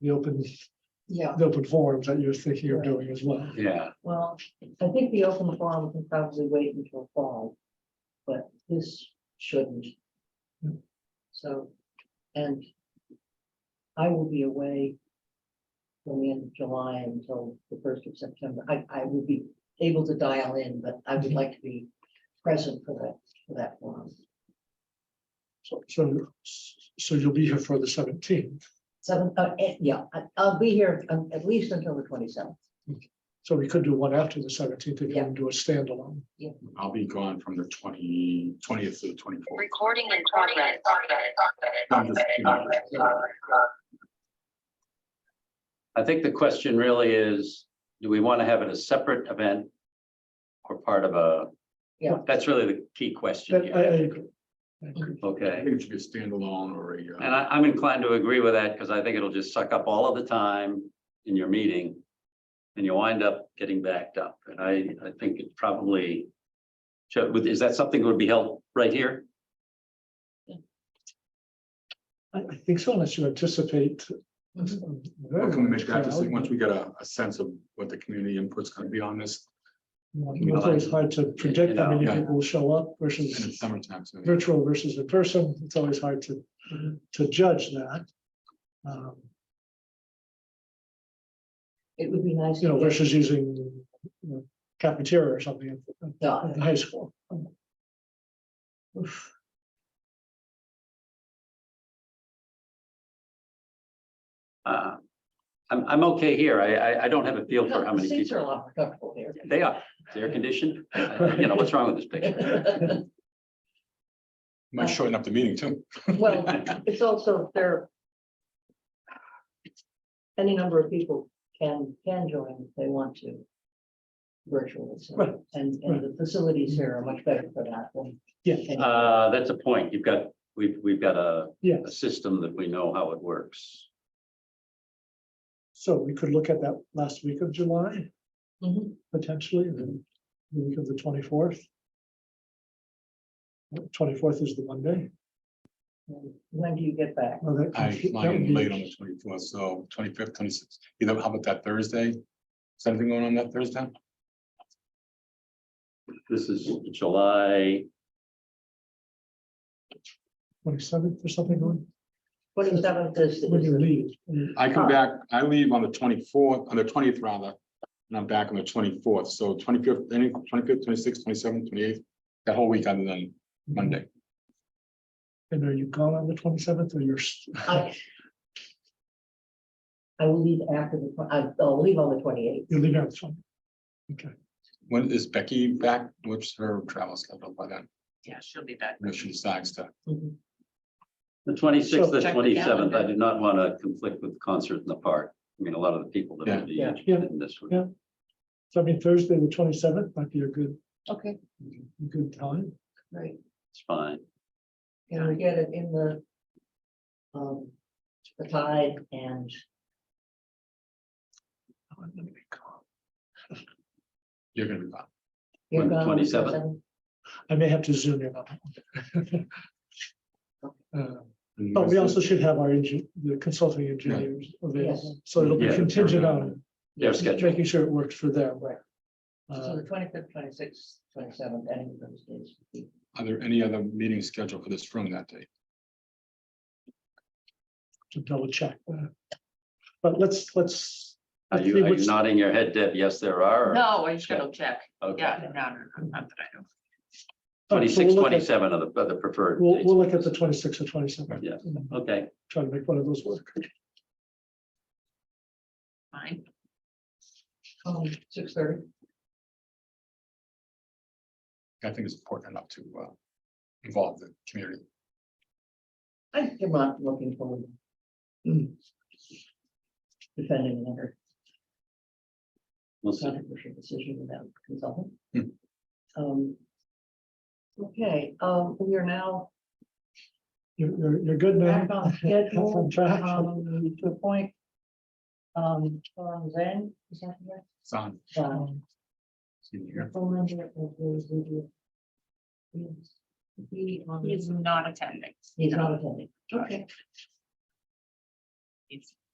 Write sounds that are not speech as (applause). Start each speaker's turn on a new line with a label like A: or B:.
A: the open,
B: Yeah,
A: the open forums that you're thinking of doing as well.
C: Yeah,
B: well, I think the open forum can probably wait until fall, but this shouldn't. So, and I will be away from the end of July until the first of September. I, I will be able to dial in, but I would like to be present for that, for that forum.
A: So, so, so you'll be here for the seventeenth.
B: Seven, uh, eh, yeah, I, I'll be here um, at least until the twenty-seventh.
A: So we could do one after the seventeenth if you want to do a standalone.
C: I'll be gone from the twenty, twentieth to the twenty-fourth.
D: Recording in progress.
E: I think the question really is, do we want to have it a separate event? Or part of a?
B: Yeah.
E: That's really the key question
A: That- I, I
E: here.
A: agree. I agree.
C: I
E: Okay,
C: think it should be a standalone or a. uh,
E: and I, I'm inclined to agree with that because I think it'll just suck up all of the time in your meeting. And you wind up getting backed up. And I, I think it probably. should- would- Is that something that would be held right here?
A: I, I think so unless you anticipate. Mm-hmm.
C: Well,
A: Very
C: Can we make
A: much
C: that, just
A: crowd.
C: once we get a, a sense of what the community input's gonna be on this
A: You know, It's always hard to predict how many
C: Yeah.
A: people will show up
C: in the
A: versus
C: summertime, so.
A: virtual versus in person. It's always hard to, to judge that. Um,
B: It would be nice.
A: You know,
B: to get-
A: versus using you know, cafeteria or something in-
B: Yeah.
A: in high school.
E: Uh, I'm, I'm okay here. I, I, I don't have a feel
B: No,
E: for how
B: the
E: many
B: seats are a
E: people.
B: lot more comfortable here.
E: They are, they're air conditioned. Uh, You know, what's wrong with this picture?
B: (laughs)
C: Might shorten up the meeting too.
B: Well, it's also there. Any number of people can, can join if they want to. Virtually, so-
A: Right.
B: and, and the facilities here are much better for that than.
A: Yeah.
B: than-
E: Uh, that's a point. You've got, we've, we've got a,
A: Yeah.
E: a system that we know how it works.
A: So we could look at that last week of July
B: Mhm.
A: potentially, and then the week of the twenty-fourth. Twenty-fourth is the Monday.
B: When do you get back?
A: Oh, that-
C: I
A: that
C: fly
A: would
C: in
A: be-
C: late on the twenty-fourth, so twenty-fifth, twenty-sixth, either, how about that Thursday? Is anything going on that Thursday?
E: This is July,
A: Twenty-seventh or something, when
B: Twenty seventh is,
A: when you leave.
C: I
A: Uh.
C: come back, I leave on the twenty-fourth, on the twentieth rather, and I'm back on the twenty-fourth, so twenty-fifth, any, twenty-fifth, twenty-sixth, twenty-seventh, twenty-eighth, that whole week other than Monday.
A: And are you gone on the twenty-seventh or you're? s-
B: I. I will leave after the, twen- I- I'll leave on the twenty eighth.
A: (laughs) You're leaving on the 20th. Okay,
C: When is Becky back? What's her travel schedule by then?
D: Yeah, she'll be back.
C: If she decides to.
E: the twenty-sixth, the
D: Check the
E: twenty-seventh. I
D: calendar.
E: did not want to conflict with concert in the park. I mean, a lot of the people that
C: Yeah.
E: would be
B: Yeah.
E: interested in this. would-
A: Yeah. so I mean, Thursday, the twenty-seventh might be a good,
D: Okay.
A: good time.
B: Right.
E: It's fine.
B: Can we get it in the? Um, the tide and
A: Oh, I'm gonna be gone.
C: You're gonna be back.
B: you're
E: When,
B: gone.
E: 27?
A: I may have to zoom in. on that one. (laughs) Uh,
C: And
A: But we
C: where's
A: also
C: the-
A: should have our engine, the consulting engineers available,
B: Yes.
A: so it'll be
E: Yeah.
A: contingent on
E: Their schedule.
A: making sure it works for them.
B: Right. So
A: Uh,
B: the twenty fifth, twenty sixth, twenty seventh, any of those days.
C: Are there any other meetings scheduled for this room that day?
A: To double check. that. But let's, let's.
E: Are
A: let's
E: you,
A: see
E: are you
A: what's-
E: nodding your head, Deb? Yes, there are. or-
D: No, I should check.
E: Okay.
D: Yeah, no, no, no, not that I know.
A: all right, so
E: Twenty-six,
A: we'll look at-
E: twenty-seven are the, are the preferred.
A: We'll,
E: dates.
A: we'll look at the twenty-six or twenty-seven.
E: Yeah. Okay.
A: Try to make one of those work.
D: Fine.
B: Um, six thirty,
C: I think it's important enough to uh involve the community.
B: I am not looking forward. mm, Defending another
E: We'll see.
B: controversial decision without consulting.
C: Hmm.
B: Um. Okay, um, we are now
A: You're, you're, you're good now.
B: back
A: (laughs)
B: on
A: That's
B: schedule.
A: on track.
B: Um, to appoint. Um, Tom Zhang, is that correct?
C: Son,
B: Um,
C: see you here.
B: Phone number of those who do. He on-
D: He's not attending.
B: He's not attending.
D: Okay. He's